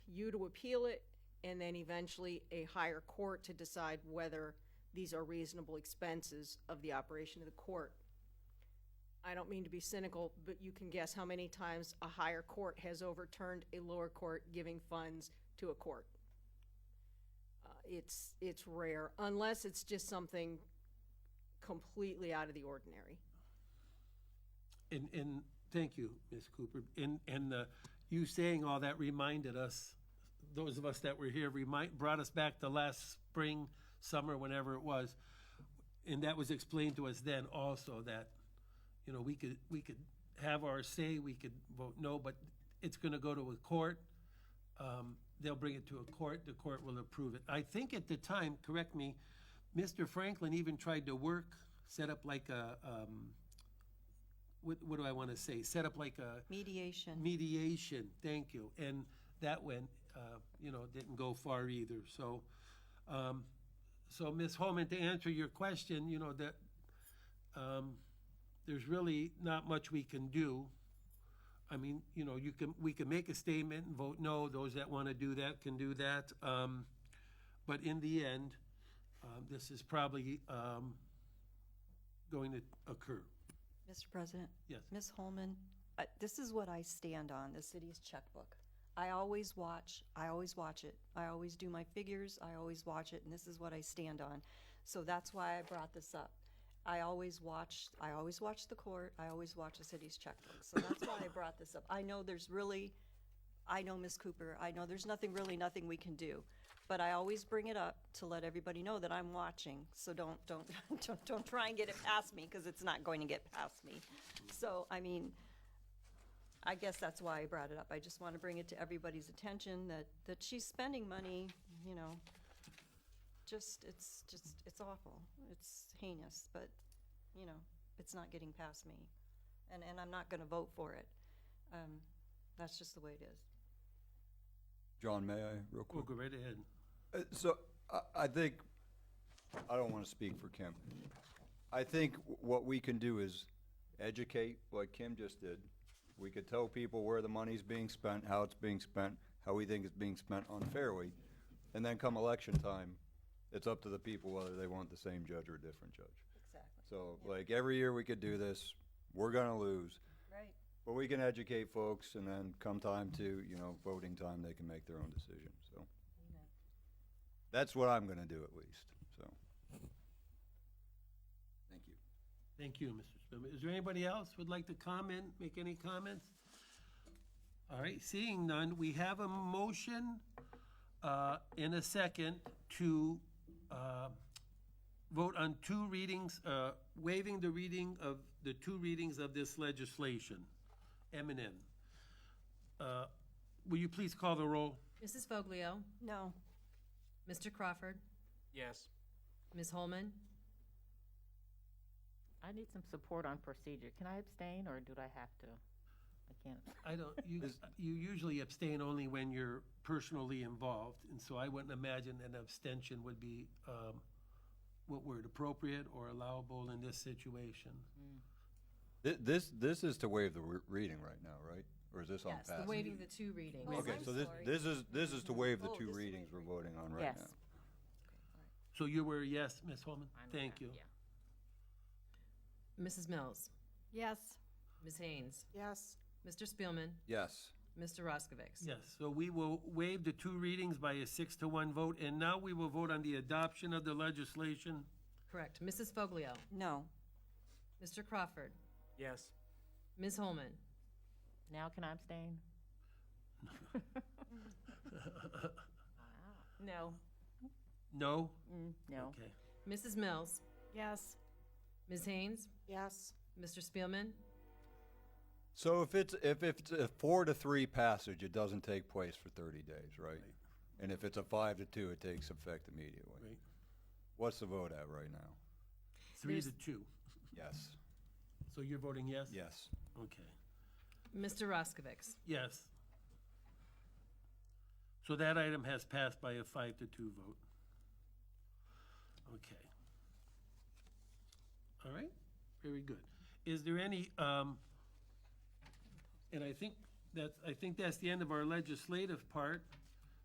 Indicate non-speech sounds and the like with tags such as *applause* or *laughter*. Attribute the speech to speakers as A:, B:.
A: you to appeal it, and then eventually a higher court to decide whether these are reasonable expenses of the operation of the court. I don't mean to be cynical, but you can guess how many times a higher court has overturned a lower court giving funds to a court. Uh, It's, it's rare, unless it's just something completely out of the ordinary.
B: And, and thank you, Ms. Cooper. And, and uh, you saying all that reminded us, those of us that were here, remind, brought us back to last spring, summer, whenever it was. And that was explained to us then also that, you know, we could, we could have our say, we could vote no, but it's going to go to a court. Um, They'll bring it to a court, the court will approve it. I think at the time, correct me, Mr. Franklin even tried to work, set up like a, um, what, what do I want to say? Set up like a
C: Mediation.
B: mediation. Thank you. And that went, uh, you know, didn't go far either. So, um, so Ms. Holman, to answer your question, you know that um, there's really not much we can do. I mean, you know, you can we can make a statement and vote no. Those that want to do that can do that. Um, but in the end, um, this is probably um, going to occur.
C: Mr. President?
B: Yes.
C: Ms. Holman, uh, this is what I stand on, the city's checkbook. I always watch, I always watch it. I always do my figures, I always watch it, and this is what I stand on. So that's why I brought this up. I always watch, I always watch the court, I always watch the city's checkbook. So that's why I brought this up. I know there's really, I know Ms. Cooper, I know there's nothing, really nothing we can do. But I always bring it up to let everybody know that I'm watching, so don't, don't, *laughs* don't, don't try and get it past me, because it's not going to get past me. So, I mean, I guess that's why I brought it up. I just want to bring it to everybody's attention that, that she's spending money, you know, just, it's, just, it's awful. It's heinous, but, you know, it's not getting past me. And, and I'm not going to vote for it. Um, that's just the way it is.
D: John, may I, real
B: We'll
D: quick?
B: go right ahead.
D: Uh, So, I, I think, I don't want to speak for Kim. I think w- what we can do is educate, like Kim just did. We could tell people where the money's being spent, how it's being spent, how we think it's being spent unfairly. And then come election time, it's up to the people whether they want the same judge or a different judge.
C: Exactly.
D: So, like, every year we could do this, we're gonna lose.
C: Right.
D: But we can educate folks and then come time to, you know, voting time, they can make their own decision, so. That's what I'm gonna do at least, so. Thank you.
B: Thank you, Mr. Spillman. Is there anybody else would like to comment, make any comments? All right, seeing none, we have a motion uh, in a second to uh, vote on two readings, uh, waiving the reading of, the two readings of this legislation, M and N. Uh, Will you please call the roll?
E: Mrs. Foglio,
C: No.
E: Mr. Crawford,
F: Yes.
E: Ms. Holman,
G: I need some support on procedure. Can I abstain or do I have to? I can't.
B: I don't, you, you usually abstain only when you're personally involved, and so I wouldn't imagine an abstention would be, um, what word, appropriate or allowable in this situation.
D: Thi- This, this is to waive the re- reading right now, right? Or is this on
E: yes, the
D: passage?
E: waiving the two readings.
C: Wait.
D: Okay,
C: I'm
D: so this,
C: sorry.
D: this is, this is to waive the
C: Oh,
D: two
C: this is
D: readings we're voting on right
G: Yes.
D: now.
B: So you were a yes, Ms. Holman?
G: I'm a
B: Thank
G: no,
B: you.
G: yeah.
E: Mrs. Mills,
C: Yes.
E: Ms. Haynes,
A: Yes.
E: Mr. Spielman,
D: Yes,
E: Mr. Roskovics.
B: Yes, so we will waive the two readings by a six to one vote, and now we will vote on the adoption of the legislation.
E: Correct. Mrs. Foglio,
C: No.
E: Mr. Crawford,
F: Yes.
E: Ms. Holman,
G: Now can
B: *laughs*
G: I abstain? *laughs* No.
B: No?
G: No.
B: Okay.
E: Mrs. Mills,
C: Yes.
E: Ms. Haynes,
A: Yes.
E: Mr. Spielman,
D: So if it's, if it's a four to three passage, it doesn't take place for thirty days, right? And if it's a five to two, it takes effect immediately.
B: Right.
D: What's the vote at right now?
B: Three to two.
D: Yes.
B: So you're voting yes?
D: Yes.
B: Okay.
E: Mr. Roskovics.
B: Yes. So that item has passed by a five to two vote. Okay. All right, very good. Is there any, um, and I think that's, I think that's the end of our legislative part.